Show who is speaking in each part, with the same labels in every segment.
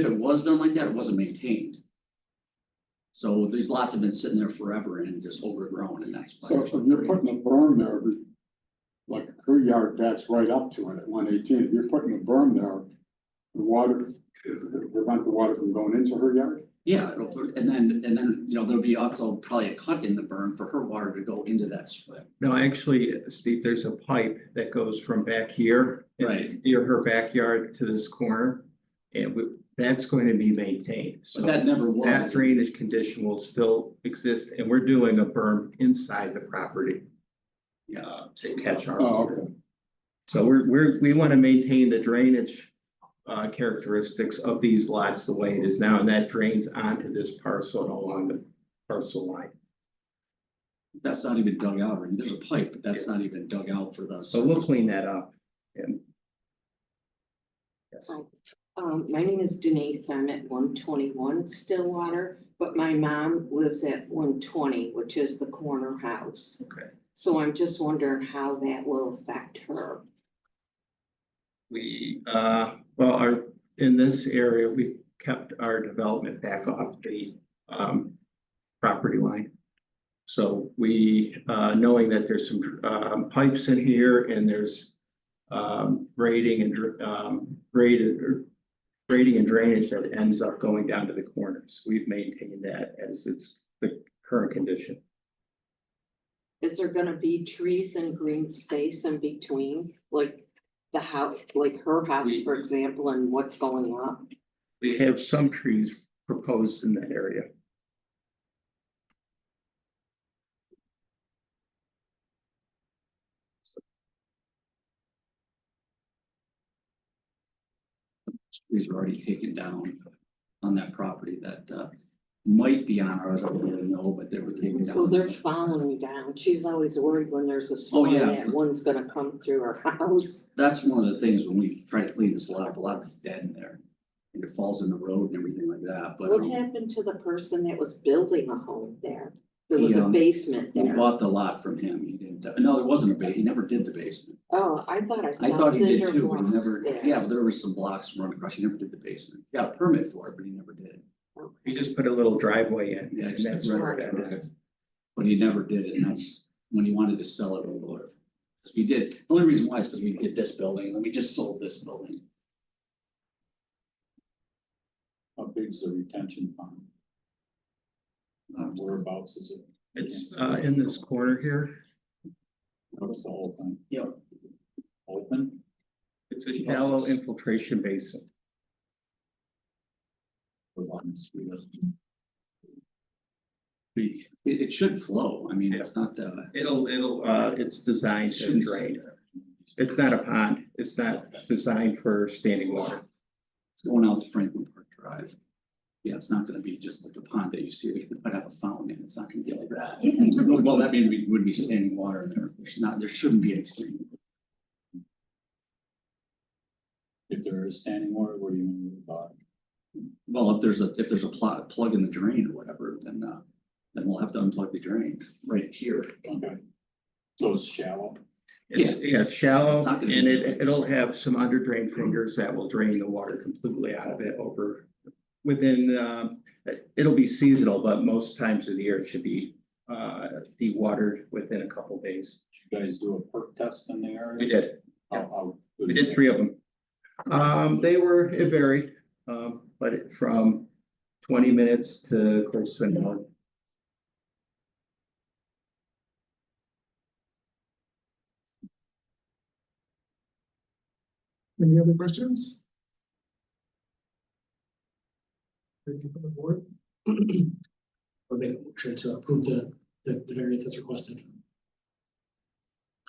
Speaker 1: If it was done like that, it wasn't maintained. So these lots have been sitting there forever and just overgrown and that's.
Speaker 2: So if you're putting a berm there, like her yard, that's right up to it at one eighteen, if you're putting a berm there, the water, it'll prevent the water from going into her yard?
Speaker 1: Yeah, it'll put- and then, and then, you know, there'll be also probably a cut in the berm for her water to go into that split.
Speaker 3: No, actually, Steve, there's a pipe that goes from back here. in-
Speaker 1: Right.
Speaker 3: Near her backyard to this corner. And we, that's going to be maintained, so.
Speaker 1: But that never
Speaker 3: That
Speaker 1: was.
Speaker 3: drainage condition will still exist and we're doing a berm inside the property
Speaker 1: Yeah,
Speaker 3: uh, to catch our.
Speaker 2: Oh,
Speaker 3: water.
Speaker 2: okay,
Speaker 3: So we're, we're, we want to maintain the drainage uh, characteristics of these lots the way it is now, and that drains onto this parcel and along the parcel line.
Speaker 1: that's not even dug out, or there's a pipe, but that's not even dug out for the.
Speaker 3: So we'll clean that up. and- Yes.
Speaker 4: Um, my name is Denise, I'm at one twenty-one Stillwater, but my mom lives at one twenty, which is the corner house.
Speaker 3: Okay.
Speaker 4: So I'm just wondering how that will affect her.
Speaker 3: We, uh, well, our, in this area, we kept our development back off the, um, property line. So we, uh, knowing that there's some, um, pipes in here and there's, um, grading and, dr- um, graded or grading and drainage that ends up going down to the corners. We've maintained that as it's the current condition.
Speaker 4: Is there gonna be trees and green space in between, like the house, like her house, for example, and what's going up?
Speaker 3: We have some trees proposed in that area.
Speaker 1: trees are already taken down on that property that uh might be on ours, I don't really know, but they were taken down.
Speaker 4: Well, they're following down, she's always worried when there's a storm
Speaker 1: Oh, yeah.
Speaker 4: that one's gonna come through her house.
Speaker 1: That's one of the things when we try to clean this lot up, a lot of it's dead in there. And it falls in the road and everything like that, but
Speaker 4: What
Speaker 1: um,
Speaker 4: happened to the person that was building a home there? There was a
Speaker 1: Yeah.
Speaker 4: basement
Speaker 1: we
Speaker 4: there.
Speaker 1: bought the lot from him, he didn't, no, there wasn't a ba, he never did the basement.
Speaker 4: Oh, I thought I
Speaker 1: I
Speaker 4: saw
Speaker 1: thought he did
Speaker 4: cinder
Speaker 1: too, but he
Speaker 4: blocks
Speaker 1: never, yeah,
Speaker 4: there.
Speaker 1: but there were some blocks run across, he never did the basement, He got a permit for it, but he never did.
Speaker 3: We just put a little driveway in.
Speaker 1: Yeah,
Speaker 3: and
Speaker 1: just a
Speaker 3: that's where
Speaker 1: driveway.
Speaker 3: that is.
Speaker 1: But he never did it, and that's when he wanted to sell it or whatever. 'Cause we did, the only reason why is because we did this building, and then we just sold this building.
Speaker 5: How big is the retention pond?
Speaker 1: Um,
Speaker 5: Whereabouts is it?
Speaker 3: It's uh in this corner here.
Speaker 5: What's the whole thing?
Speaker 1: Yeah.
Speaker 5: Open?
Speaker 3: It's a shallow infiltration basin.
Speaker 5: Or on the street?
Speaker 1: It, it should flow, I mean, it's not the.
Speaker 3: It'll, it'll, uh, it's
Speaker 1: it
Speaker 3: designed to
Speaker 1: shouldn't sit
Speaker 3: drain.
Speaker 1: there.
Speaker 3: It's not a pond. It's not designed for standing water.
Speaker 1: It's going out to Franklin Park Drive. Yeah, it's not gonna be just like a pond that you see, they could put up a fountain, and it's not gonna be like that. Well, that means we would be standing water in there, there's not, there shouldn't be any standing.
Speaker 5: If there is standing water, what do you mean by?
Speaker 1: Well, if there's a, if there's a plot, plug in the drain or whatever, then, uh, then we'll have to unplug the drain right here.
Speaker 5: Okay. So it's shallow?
Speaker 3: It's, yeah, it's shallow
Speaker 1: Not
Speaker 3: and
Speaker 1: gonna
Speaker 3: it, it'll have some under drain fingers that will drain the water completely out of it over. Within, um, it- it'll be seasonal, but most times of the year it should be uh dewatered within a couple days.
Speaker 5: Did you guys do a perk test in the area?
Speaker 3: We did.
Speaker 5: How, how?
Speaker 3: We did three of them. Um, they were, it varied, um, but it- from twenty minutes to close to an hour.
Speaker 6: Any other questions? Thank you from the board. I'll make a motion to approve the, the, the variance that's requested.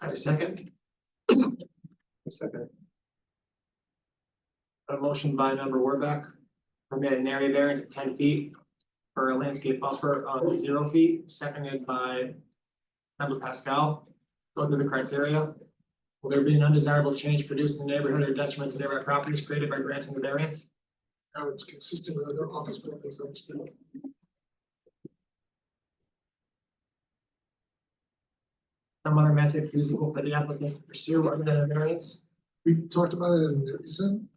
Speaker 6: I second. A second. A motion by member Warbeck, permit an area variance of ten feet for a landscape buffer of zero feet, seconded by member Pascal. Go through the criteria. Will there be an undesirable change produced in the neighborhood or detriment to nearby properties created by granting the variance? No, it's consistent with other office buildings on the street. Some other method feasible for the applicant to pursue other than a variance? We talked about it and there isn't.